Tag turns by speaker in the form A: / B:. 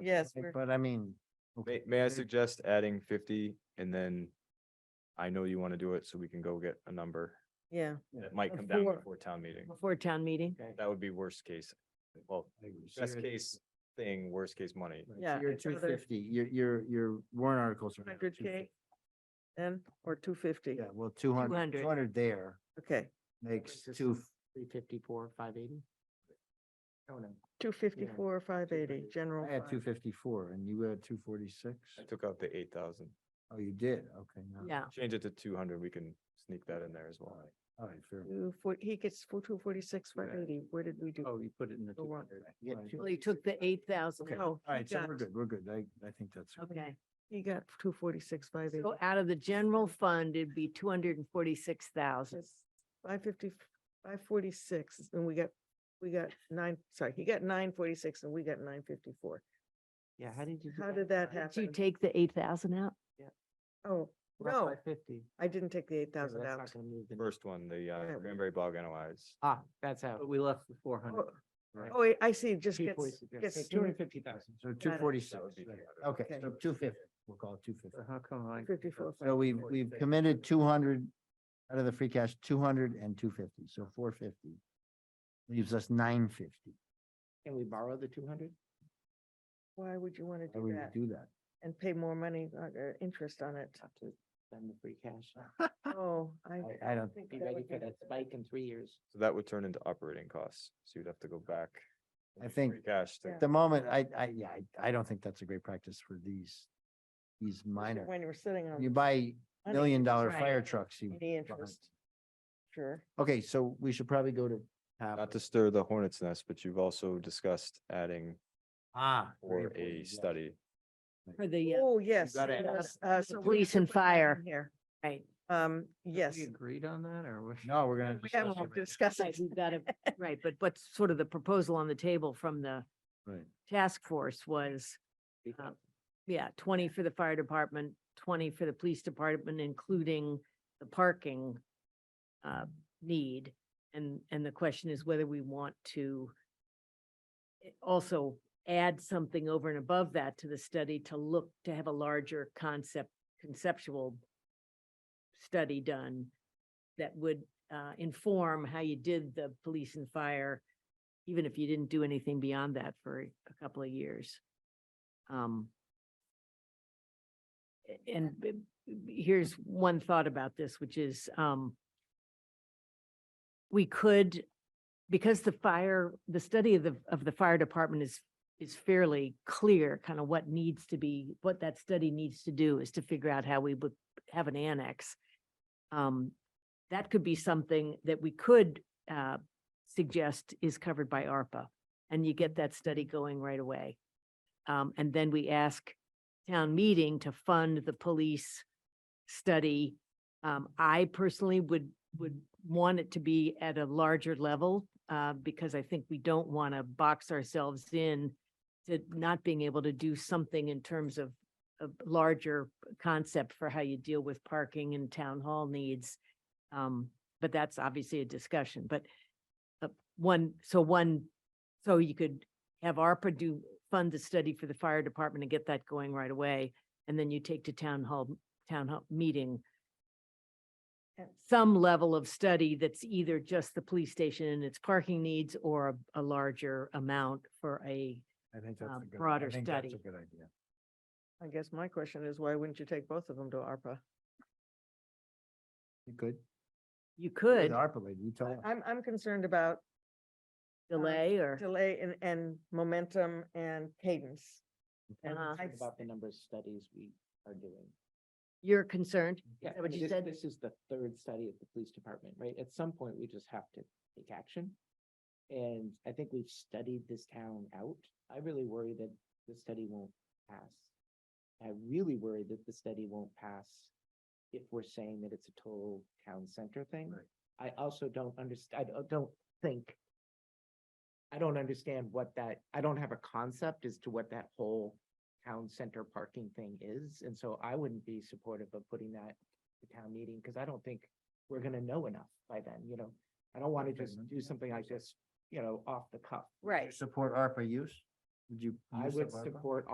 A: yes,
B: Right,
A: we're-
B: But I mean.
C: May,
B: okay,
C: may I
B: there-
C: suggest adding fifty and then I know you want to do it, so we can go get a number.
A: yeah,
C: It might come down
D: Before-
C: before town meeting.
D: before town meeting.
B: okay,
C: That would be worst case. Well,
B: I agree. So
C: best
B: you're-
C: case thing, worst case money.
B: right, so
A: Yeah,
B: You're
A: it's another-
B: two fifty, your, your, your warrant articles are. now
A: 100K?
B: 250.
A: and, or two fifty,
B: Yeah, well, 200
D: 200.
B: 200 there
A: okay,
B: makes
E: Just
B: two,
E: Three fifty-four, five eighty.
B: oh, no,
A: two fifty-four, five eighty, general.
B: I had two
A: fund.
B: fifty-four and you had two forty-six?
C: I took out the eight thousand.
B: Oh, you did, okay. now-
D: Yeah,
C: Change it to two hundred. We can sneak that in there as well.
B: All right, fair.
A: Two four- He gets two forty-six, five eighty, where did we do?
B: Oh, you put it in the
A: The
B: two
A: warrant.
B: hundred.
E: Yeah, two-
D: well, you took the eight thousand.
B: Okay,
A: No,
B: all
A: he
B: right, so we're
A: got-
B: good, we're good. I, I think that's.
D: Okay,
A: Oh, He got two forty-six, five eighty,
D: so out of the general fund, it'd be two hundred and forty-six thousand.
A: five fifty, five forty-six, and we got, we got nine, sorry, he got nine forty-six and we got nine fifty-four.
E: Yeah, how did you? do
A: How did that
D: Did you
A: happen?
D: take the eight thousand out?
A: Oh,
E: Well,
A: no,
E: Five fifty.
A: I didn't take the eight thousand out.
C: First one, the
A: Yeah,
C: uh,
A: we-
C: Cranberry Bog NOIs.
E: Ah, that's out.
F: But we left the four hundred.
A: Oh, Oh, wait, I see, it just
E: Two
A: gets,
E: forty-six, yeah,
A: gets
E: Two hundred and fifty thousand.
B: So two forty-six,
C: That would be 200.
B: okay,
A: Okay.
B: so two fifty, we'll call it two fifty.
F: How come I?
A: fifty-four.
B: So we've, we've committed two hundred out of the free cash, 200 and 250. so four fifty. Leaves us nine fifty.
E: Can we borrow the two hundred?
A: Why would you want to
B: How
A: do
B: would
A: that
B: we do that?
A: and pay more money, uh, uh, interest on it?
E: Have to spend the free cash.
A: Oh, I.
B: I, I don't,
A: think
E: Be
A: that
E: ready
A: would
E: for
A: be-
E: that spike in three years.
C: So that would turn into operating costs. So you'd have to go back.
B: I think-
C: free Cash to
A: Yeah.
B: at the moment, I, I, yeah, I, I don't think that's a great practice for these, these minor.
A: When you were sitting on.
B: You buy
A: money,
B: million dollar
D: Right.
B: fire trucks, you.
A: Any
B: buy.
A: interest. Sure.
B: Okay, so we should probably go to. half.
C: Not to stir the hornet's nest, but you've also discussed adding
B: Ah. very
C: for
B: important,
C: a
B: yes.
C: study.
D: For the, uh,
A: Oh, yes.
B: gotta
A: and,
D: ask
A: uh,
D: the
A: so we're
D: police and
A: putting that in
D: fire.
A: Here,
D: right,
A: um, yes,
F: We agreed on that or? we-
B: No, we're gonna.
A: we
B: discuss it
A: haven't
B: right
A: discussed
D: right,
A: it.
D: we've got it, right, but what's sort of the proposal on the table from the
B: now. Right.
D: task force was, um, yeah, twenty for the fire department, twenty for the police department, including the parking uh, need. And, and the question is whether we want to i- also add something over and above that to the study to look, to have a larger concept, conceptual study done that would uh, inform how you did the police and fire, even if you didn't do anything beyond that for a couple of years. Um, a- And b- b- here's one thought about this, which is, um, we could, because the fire, the study of the, of the fire department is, is fairly clear, kind of what needs to be, what that study needs to do is to figure out how we would have an annex. Um, that could be something that we could, uh, suggest is covered by ARPA. And you get that study going right away. Um, and then we ask town meeting to fund the police study. Um, I personally would, would want it to be at a larger level, uh, because I think we don't want to box ourselves in to not being able to do something in terms of a larger concept for how you deal with parking and town hall needs. Um, but that's obviously a discussion, but uh, one, so one, so you could have ARPA do, fund the study for the fire department and get that going right away. And then you take to town hall, town hall meeting
A: And-
D: some level of study that's either just the police station and its parking needs or a- a larger amount for a,
B: I think that's
D: uh,
B: a good. I
D: broader
B: think that's
D: study.
B: A good idea.
A: I guess my question is, why wouldn't you take both of them to ARPA?
B: You could.
D: you
B: You're
D: could
B: The ARPA lady, you tell us.
A: I'm, I'm concerned about
D: delay or.
A: delay and, and momentum and cadence. And
D: Uh-huh.
A: I
E: Think About the number of studies we are doing.
D: You're concerned?
E: Yeah,
D: that what
E: I mean,
D: you
E: this-
D: said?
E: This is the third study of the police department, right? At some point, we just have to take action. And I think we've studied this town out. I really worry that the study won't pass. I really worry that the study won't pass if we're saying that it's a total town center thing.
B: Right.
E: I also don't understand, I don't- don't think, I don't understand what that, I don't have a concept as to what that whole town center parking thing is, and so I wouldn't be supportive of putting that to town meeting, because I don't think we're gonna know enough by then, you know? I don't want to
B: Okay,
E: just
B: then.
E: do something like this, you know, off the cuff.
B: Would you Support ARPA use? Would you?
E: I
B: use
E: would
B: of ARPA?
E: support